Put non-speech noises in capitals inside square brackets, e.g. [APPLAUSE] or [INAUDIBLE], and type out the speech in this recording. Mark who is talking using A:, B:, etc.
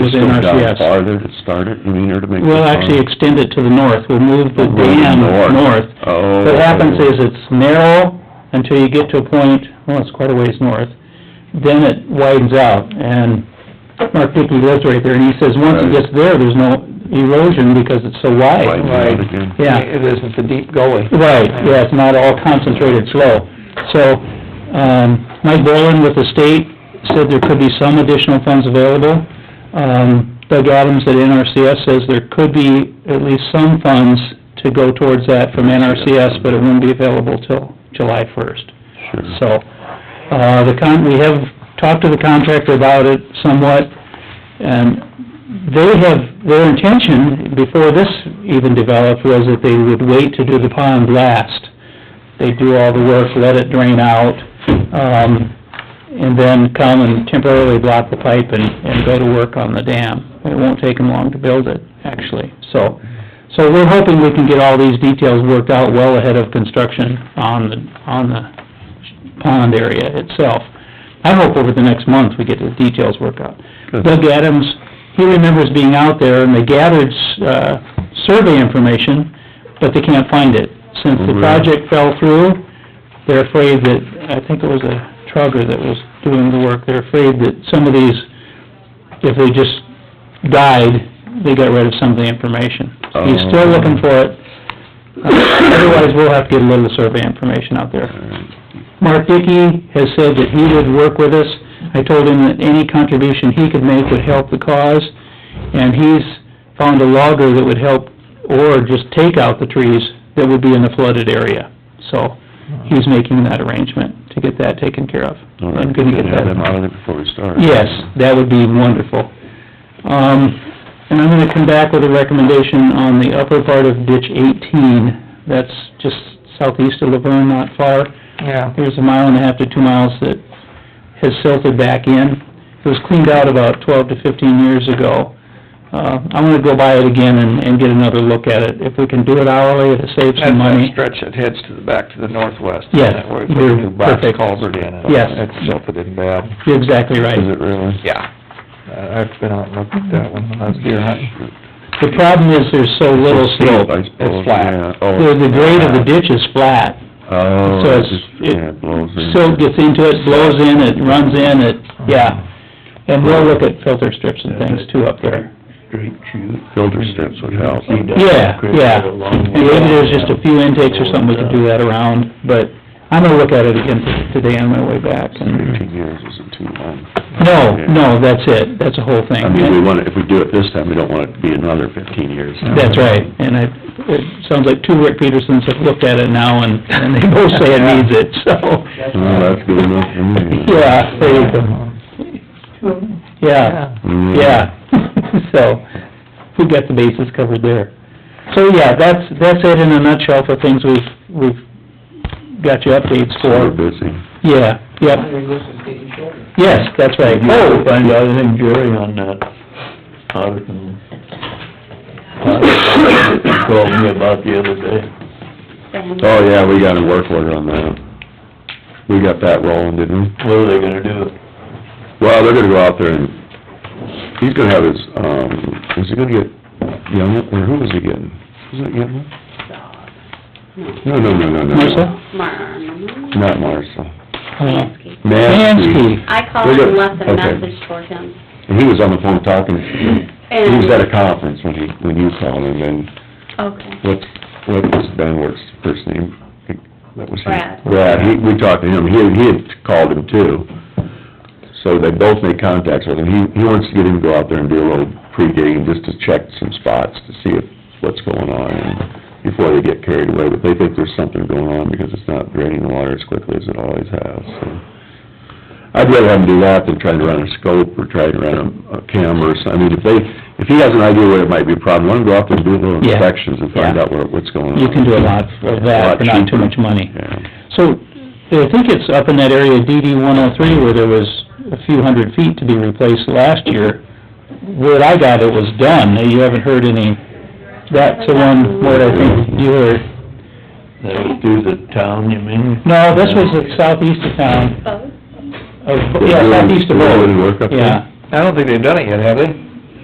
A: was in
B: Go down
A: RCS.
B: farther to start it, you mean, or to make?
A: We'll
B: the
A: actually
B: farm?
A: extend it to the north, we'll move the
B: Move it
A: dam
B: north.
A: north.
B: Oh.
A: What happens is it's narrow until you get to a point, well, it's quite a ways north, then it widens out, and Mark Dickey lives right there, and he says, once it
B: Right.
A: gets there, there's no erosion because it's so wide.
B: Widens out again.
A: Yeah,
C: It isn't the deep gully.
A: right, yeah, it's not all concentrated flow. So, um, Mike Boland with the state said there could be some additional funds available. Um, Doug Adams at NRCS says there could be at least some funds to go towards that from NRCS, but it wouldn't be available till July first.
B: Sure.
A: So, uh, the con, we have talked to the contractor about it somewhat, and they have, their intention, before this even developed, was that they would wait to do the pond last. They do all the work, let it drain out, um, and then come and temporarily block the pipe and, and go to work on the dam. It won't take them long to build it, actually, so. So we're hoping we can get all these details worked out well ahead of construction on the, on the pond area itself. I hope over the next month we get the details worked out.
B: Good.
A: Doug Adams, he remembers being out there and they gathered, uh, survey information, but they can't find it. Since the
B: Oh, Really?
A: project fell through, they're afraid that, I think it was a trucker that was doing the work, they're afraid that some of these, if they just died, they got rid of some of the information. He's still
B: Oh.
A: looking for it. Uh, Otherwise, we'll have to get a little survey information out there. Mark Dickey has said that he would work with us. I told him that any contribution he could make would help the cause, and he's found a logger that would help, or just take out the trees that would be in the flooded area. So, he's making that arrangement to get that taken care of.
B: All
A: I'm
B: right,
A: gonna
B: we
A: get
B: can have
A: that-
B: them out of it before we start.
A: Yes, that would be wonderful. Um, and I'm gonna come back with a recommendation on the upper part of ditch eighteen. That's just southeast of Laverne, not far.
C: Yeah.
A: There's a mile and a half to two miles that has silted back in. It was cleaned out about twelve to fifteen years ago. Uh, I'm gonna go by it again and, and get another look at it. If we can do it hourly, it'll save
C: That's
A: some money.
C: that stretch that heads to the, back to the northwest.
A: Yes,
C: Where we put a new box
A: perfect.
C: culvert in and
A: Yes.
C: it's silted in bad.
A: You're exactly right.
B: Is it really?
C: Yeah. Uh, I've been out and looked at that one when I was deer hunting.
A: The problem is there's so little slope.
B: I suppose,
C: It's flat.
B: yeah. Oh,
A: The, the grade of the ditch is flat,
B: Oh,
A: so
B: it
A: it's,
B: just, yeah,
A: it,
B: it blows in.
A: silt gets into it, blows in, it runs in, it, yeah. And we'll look at filter strips and things too up there.
C: Um,
B: Filter strips would help.
A: Yeah, yeah. And maybe there's just a few intakes or something we could do that around, but I'm gonna look at it again t- today on my way back and,
B: Fifteen years isn't too long.
A: no, no, that's it, that's the whole
B: I mean, we
A: thing.
B: wanna, if we do it this time, we don't want it to be another fifteen years.
A: That's right, and I, it sounds like two Rick Petersons have looked at it now and, and they both say it needs it, [LAUGHS] so.
B: Well, that's good enough for me.
A: Yeah, there you go.
C: um,
A: Yeah,
B: Mm.
A: yeah, [LAUGHS] so, we got the bases covered there. So, yeah, that's, that's it in a nutshell for things we've, we've got you updates
B: So We're
D: [COUGHS]
A: for.
B: busy.
A: Yeah, yep, yes, that's right.
D: Oh, find out anything, Jerry, on that audit and... He Called me about the other day.
B: Oh, yeah, we got a work order on that. We got that rolling, didn't we?
D: What are they gonna do?
B: Well, they're gonna go out there and, he's gonna have his, um, is he gonna get Youngman, or who was he getting? Is it Youngman? No, no, no, no, no. no.
A: Marcia?
E: Marm.
B: Not Marshall.
E: Mansky.
B: Mansky.
E: I called
B: They're
E: him,
B: good.
E: left a
B: Okay.
E: message for him.
B: And he was on the phone talking, he was at a conference when he, when you called him, and
E: Okay.
B: what, what was Dunworth's first name? That was his-
E: Brad.
B: Brad, he, we talked to him, he, he had called him too. So they both made contacts with him, he, he wants to get him to go out there and do a little pre-digging, just to check some spots to see if, what's going on, and before they get carried away, but they think there's something going on, because it's not draining the water as quickly as it always has, so. I'd rather have him do that than trying to run a scope or trying to run a, a camera or something, I mean, if they, if he has an idea where it might be a problem, let him go out there and do little
A: Yeah.
B: inspections and find
A: Yeah.
B: out where, what's going on.
A: You can do a lot of that for not too much money.
B: Yeah,
A: So, I think it's up in that area DD one oh three where there was a few hundred feet to be replaced last year. Where I got it was done, you haven't heard any, that's the one where I think you heard.
D: That was through the town, you mean?
A: No, this was the southeast of town,
E: Oh,
A: of, yeah, southeast of
B: Really, really
A: Bow.
B: work up there?
A: Yeah,
C: I don't think they've done it yet, have they?